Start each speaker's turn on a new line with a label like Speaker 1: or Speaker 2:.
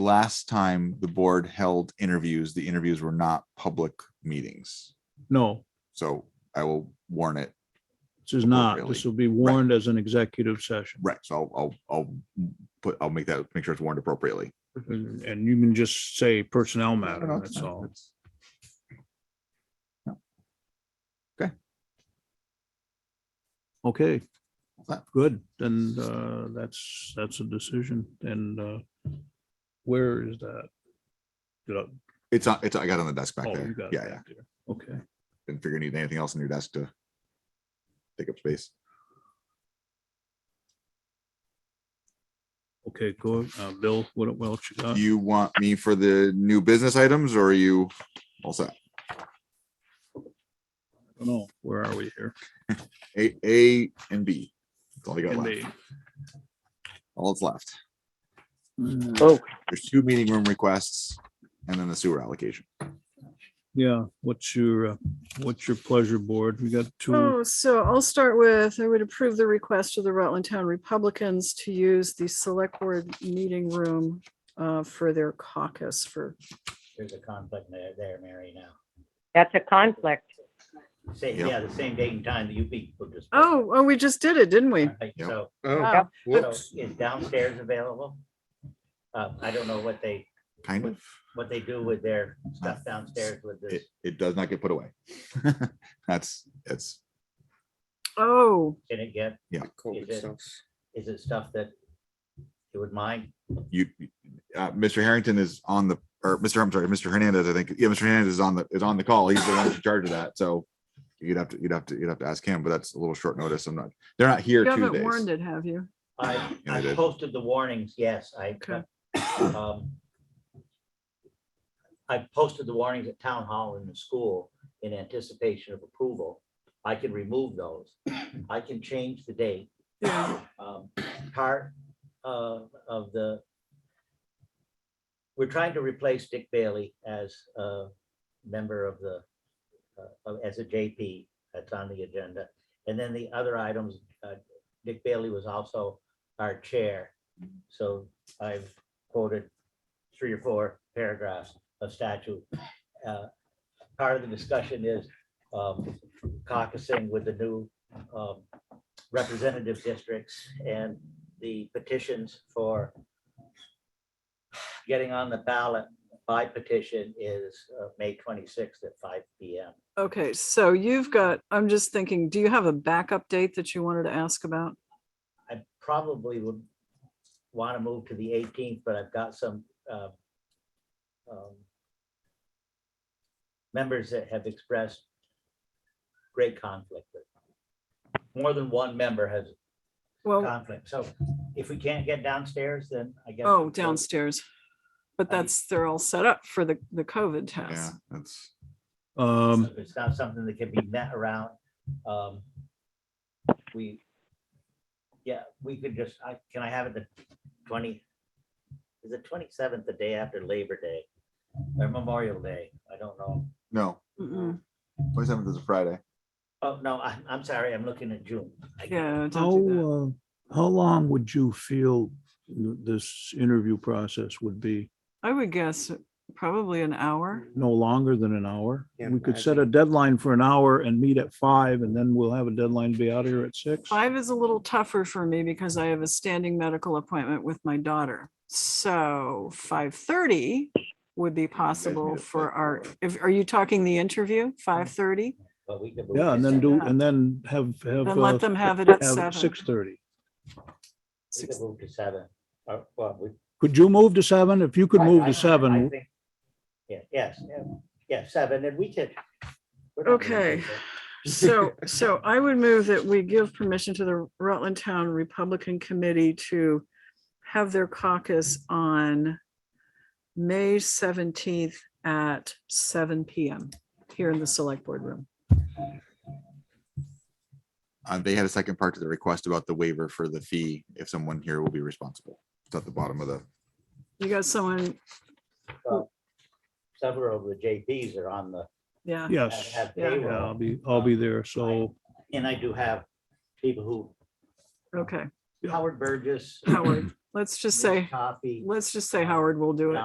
Speaker 1: last time the board held interviews, the interviews were not public meetings.
Speaker 2: No,
Speaker 1: So I will warn it.
Speaker 2: this is
Speaker 1: Not
Speaker 2: not.
Speaker 1: Oh, really.
Speaker 2: This will be warned as an executive session.
Speaker 1: Right. So I'll, I'll, I'll put, I'll make that, make sure it's warned appropriately.
Speaker 2: And and you can just say personnel matter,
Speaker 1: No, no, it's
Speaker 2: that's
Speaker 1: fine.
Speaker 2: all.
Speaker 1: It's- No. Okay.
Speaker 2: Okay,
Speaker 1: What's that?
Speaker 2: good. Then uh, that's, that's a decision. And uh, where is that? Did I-
Speaker 1: It's, on- it's, I got it on the desk back
Speaker 2: Oh,
Speaker 1: there.
Speaker 2: you got it
Speaker 1: Yeah, yeah.
Speaker 2: back there. Okay.
Speaker 1: Didn't figure you needed anything else on your desk to take up space.
Speaker 2: Okay, cool. Uh, Bill, what, what else you got?
Speaker 1: You want me for the new business items or are you all set?
Speaker 2: No, where are we here?
Speaker 1: A, A and B. That's all you got
Speaker 2: Can
Speaker 1: left.
Speaker 2: be.
Speaker 1: All that's left.
Speaker 2: Mm,
Speaker 3: Oh,
Speaker 1: There's two meeting room requests and then the sewer allocation.
Speaker 2: Yeah, what's your, uh, what's your pleasure, board? We got two,
Speaker 3: oh, so I'll start with, I would approve the request of the Rutland Town Republicans to use the select board meeting room uh, for their caucus for,
Speaker 4: There's a conflict there, there, Mary, now.
Speaker 5: That's a conflict.
Speaker 4: Say,
Speaker 1: Yep.
Speaker 4: yeah, the same date and time that you people just.
Speaker 3: oh, oh, we just did it, didn't we?
Speaker 4: Right,
Speaker 1: Yep.
Speaker 4: So,
Speaker 3: Wow.
Speaker 4: so is downstairs available? Uh, I don't know what they,
Speaker 1: Kind of.
Speaker 4: what they do with their stuff downstairs with
Speaker 1: It,
Speaker 4: this.
Speaker 1: it does not get put away. That's, that's,
Speaker 3: Oh,
Speaker 4: Can it get,
Speaker 6: COVID
Speaker 4: Is it-
Speaker 6: stuff.
Speaker 4: is it stuff that you would mind?
Speaker 1: you, uh, Mr. Harrington is on the, or Mr. I'm sorry, Mr. Hernandez, I think. Yeah, Mr. Hernandez is on the, is on the call. He's the one in charge of that. So you'd have to, you'd have to, you'd have to ask him, but that's a little short notice. I'm not, they're not here
Speaker 3: you
Speaker 1: two
Speaker 3: haven't warned
Speaker 1: days.
Speaker 3: it, have you?
Speaker 4: I,
Speaker 1: Yeah,
Speaker 4: I
Speaker 1: they did.
Speaker 4: posted the warnings, yes, I.
Speaker 3: Okay.
Speaker 4: um, I posted the warnings at town hall and the school in anticipation of approval. I can remove those. I can change the date.
Speaker 3: Yeah,
Speaker 4: um, part uh, of the, we're trying to replace Dick Bailey as a member of the, uh, of- as a JP that's on the agenda. And then the other items, uh, Dick Bailey was also our chair. So I've quoted three or four paragraphs of statute. Uh, Part of the discussion is um, caucusing with the new um, representative districts and the petitions for getting on the ballot by petition is uh, May 26th at five PM.
Speaker 3: okay, so you've got, I'm just thinking, do you have a backup date that you wanted to ask about?
Speaker 4: I probably would want to move to the 18th, but I've got some uh, um, members that have expressed great conflict. with More than one member has
Speaker 1: Uh,
Speaker 3: Well,
Speaker 4: conflict. So if we can't get downstairs, then I guess.
Speaker 3: oh,
Speaker 4: we'll-
Speaker 3: downstairs. But
Speaker 4: I-
Speaker 3: that's, they're all set up for the, the COVID
Speaker 1: Yeah,
Speaker 3: test.
Speaker 1: that's.
Speaker 2: um,
Speaker 4: So It's not something that can be met around. Um We, yeah, we could just, I, can I have it the twenty? Is it twenty-seventh, the day after Labor Day or Memorial Day? I don't know.
Speaker 1: No,
Speaker 3: Mm-mm.
Speaker 1: twenty seventh is a Friday.
Speaker 4: Oh, no, I'm, I'm sorry, I'm looking at June. I-
Speaker 3: Yeah,
Speaker 2: How,
Speaker 3: don't do
Speaker 1: oh.
Speaker 3: that.
Speaker 2: uh, how long would you feel th- this interview process would be?
Speaker 3: I would guess probably an hour.
Speaker 2: No longer than an hour?
Speaker 6: Yeah,
Speaker 2: We could
Speaker 6: I
Speaker 2: set a deadline for an hour and meet at five and then we'll have a deadline to be out of here at six.
Speaker 3: Five is a little tougher for me because I have a standing medical appointment with my daughter. So five thirty would be possible
Speaker 1: at
Speaker 3: for
Speaker 1: five
Speaker 3: our, if, are you talking the interview, five thirty?
Speaker 4: But we could. move
Speaker 2: Yeah, and then
Speaker 4: to
Speaker 2: do,
Speaker 4: seven-
Speaker 2: and then have, have.
Speaker 3: Then let
Speaker 2: uh,
Speaker 3: them have it at
Speaker 2: have
Speaker 3: seven.
Speaker 2: Six thirty.
Speaker 4: We could move to seven. Or, well, we-
Speaker 2: Could you move to seven? If you could
Speaker 4: I-
Speaker 2: move
Speaker 4: I-
Speaker 2: to
Speaker 4: I
Speaker 2: seven,
Speaker 4: think- Yeah, yes, yeah, yeah, seven, and we could. we're not gonna
Speaker 3: Okay.
Speaker 4: do that.
Speaker 3: So, so I would move that we give permission to the Rutland Town Republican Committee to have their caucus on May seventeenth at seven PM here in the select board room.
Speaker 1: Uh, they had a second part to the request about the waiver for the fee, if someone here will be responsible. It's at the bottom of the,
Speaker 3: You got someone,
Speaker 4: Several of the JPs are on the.
Speaker 3: yeah.
Speaker 4: have-
Speaker 2: yes.
Speaker 4: have
Speaker 3: Yeah.
Speaker 2: Yeah, I'll
Speaker 4: payroll,
Speaker 2: be, I'll be there. So
Speaker 4: And I do have people who,
Speaker 3: Okay,
Speaker 2: Yeah.
Speaker 4: Howard Burgess,
Speaker 3: Howard, let's just say,
Speaker 4: Coffee.
Speaker 3: let's just say Howard will do it.